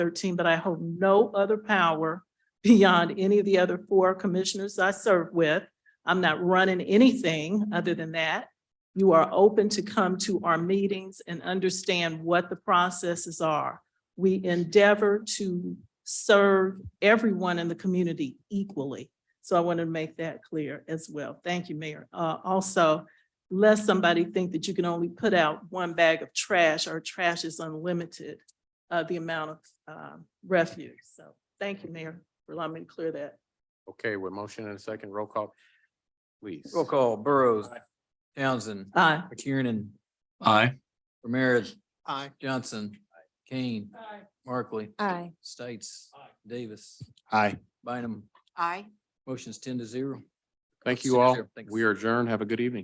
thirteen, but I hold no other power beyond any of the other four commissioners I serve with. I'm not running anything other than that. You are open to come to our meetings and understand what the processes are. We endeavor to serve everyone in the community equally. So I want to make that clear as well. Thank you, Mayor. Uh, also, lest somebody think that you can only put out one bag of trash or trash is unlimited, uh, the amount of, um, refuse. So thank you, Mayor, for allowing me to clear that. Okay, with motion and a second, roll call, please. Roll call, Burrows, Townsend, Aye. McKiernan, Aye. Ramirez, Aye. Johnson, Kane, Markley, Aye. States, Davis, Aye. Bynum. Aye. Motion's ten to zero. Thank Six you all. zero, thanks. We are adjourned. Have a good evening.